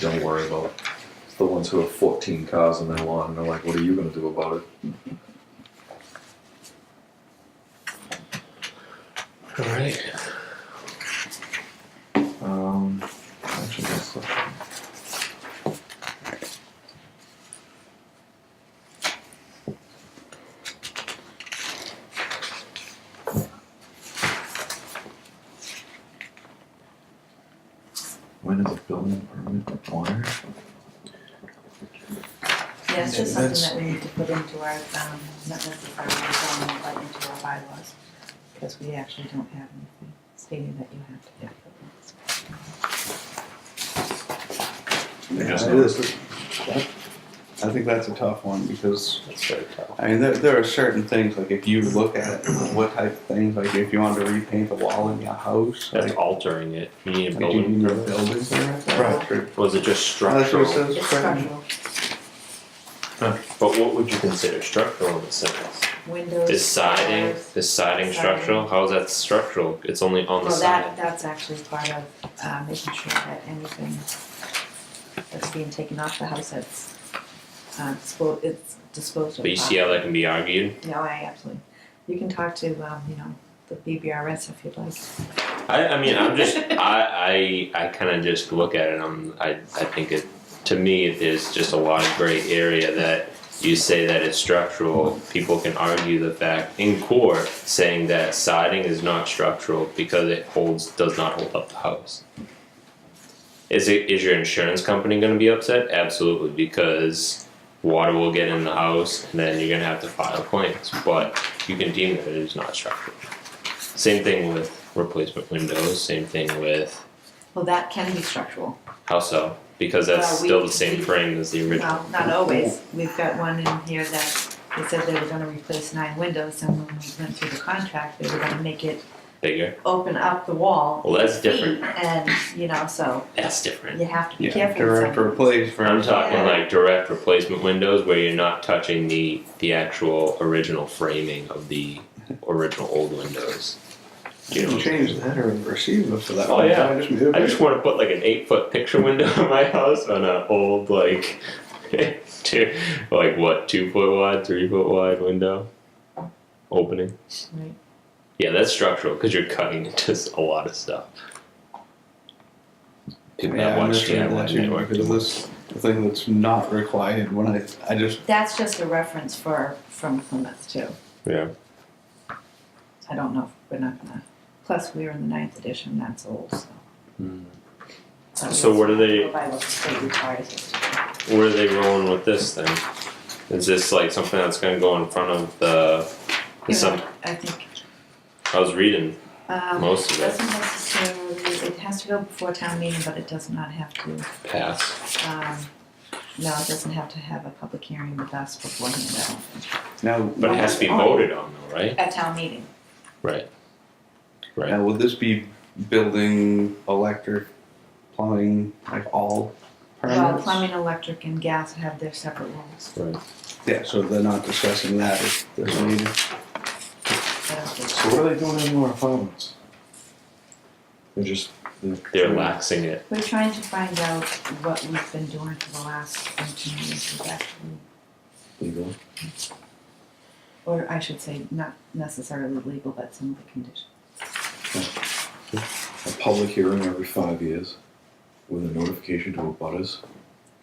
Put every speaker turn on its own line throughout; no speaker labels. don't worry about. it. It's the ones who have 14 cars in their lawn and they're like, what are you going to do about it?
All right.
Um, actually, that's the- When is a building permit required?
Yeah, it's just
That's-
something that we need to put into our, um, not necessarily, zoning, but into our bylaws, because we actually don't have anything stating that you have to have permits.
Yeah,
Yes,
it
no.
is. That- I think that's a tough one because
That's very tough.
I mean there, there are certain things like if you look at what type of things like if you wanted to repaint the wall in your house,
That's
like,
altering it. You need a
did you
building.
need a building permit?
Right.
Or-
Was it just
That's what it
structural?
says.
It's
right?
structural,
But what would you consider structural in the sentence?
windows.
Is siding,
doors.
is siding structural? How is that structural? It's only on the
Well,
side.
that, that's actually part of, uh, making sure that anything that's being taken off the house, it's, uh, disposed, it's disposed of.
But you see how that can be argued?
No, I absolutely, you can talk to, um, you know, the BBRS if you'd like.
I, I mean, I'm just, I, I, I kind of just look at it. I'm, I, I think it, to me, there's just a lot of gray area that you say that it's structural. People can argue the fact in court saying that siding is not structural because it holds, does not hold up the house. Is it, is your insurance company going to be upset? Absolutely, because water will get in the house and then you're going to have to file claims. But you can deem that it is not structural. Same thing with replacement windows, same thing with
Well, that can be structural.
how so? Because that's
Well, we-
still the same
we-
frame as the original.
Well, not always. We've got one in here that they said they were gonna replace nine windows and when we went through the contract, they were gonna make it
Bigger.
open up the wall.
Well, that's
eight feet,
different.
And, you know, so
That's different.
you have to be
Yeah,
careful. with
direct
some-
replace for
I'm talking
Yeah.
like direct replacement windows where you're not touching the the actual original framing of the original old windows.
You can change that or receive it for that.
Oh,
one.
yeah.
I just moved
I
it.
just want to put like an eight foot picture window in my house on an old like two, like what two foot wide, three foot wide window opening.
Right.
Yeah, that's structural because you're cutting into s- a lot of stuff. People
yeah,
that
I
watch
understand
DIY
that too,
Network.
because this the thing that's not required when I I just
That's just a reference for, from Plymouth too.
Yeah.
I don't know if we're not gonna, plus we were in the ninth edition, that's old, so.
Hmm. So what are they-
By what the state requires us to do.
Where are they rolling with this then? Is this like something that's going to go in front of the?
You
Some,
know, I think,
I was reading
um,
most of it
doesn't necessarily, it has to go before town meeting, but it does not have to.
pass.
Um, no, it doesn't have to have a public hearing with us beforehand, I don't think.
now
But it has to be voted on though, right?
At town meeting,
Right. Right.
Now, would this be building, electric, plumbing, like all
well,
permits?
plumbing, electric, and gas have their separate rules,
Yeah, so they're not discussing that if there's needed.
I don't think.
So what are they doing in more apartments? They're just they're,
They're laxing it.
We're trying to find out what we've been doing for the last fourteen years with that,
legal.
or I should say, not necessarily legal, but some of the conditions.
A public hearing every five years with a notification to abutters.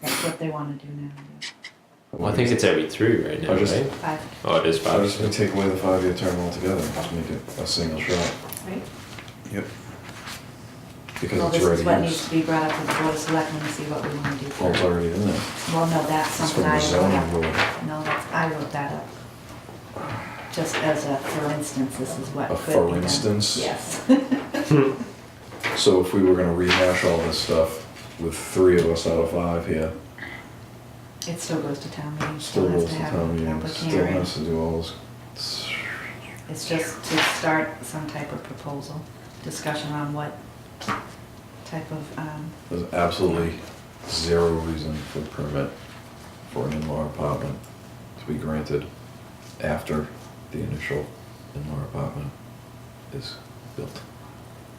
That's what they wanna do now, yeah.
Well, I think it's every three right now,
I just-
right?
five,
Oh, it is
I
five.
was just gonna take away the five-year term altogether and just make it a single shot
right? Well,
because
this
it's
is what
already
needs
used.
to be brought up with the board of selectmen to see what we wanna do.
Well, it's already in there.
Well, no, that's
It's from
something
the
I wrote
zoning
up.
board.
No, that's, I wrote that up. Just as a, for instance, this is what
A
could be
for
done.
instance.
Yes.
So if we were gonna rehash all this stuff with three of us out of five here,
It still goes to town meeting,
still
still has
goes
to
to
have
town
a
meeting,
public
still
hearing.
has to do all this.
It's just to start some type of proposal, discussion on what type of, um,
There's absolutely zero reason for a permit for an in-law apartment to be granted after the initial in-law apartment is built,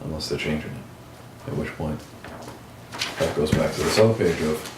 unless they're changing it, at which point that goes back to this other page of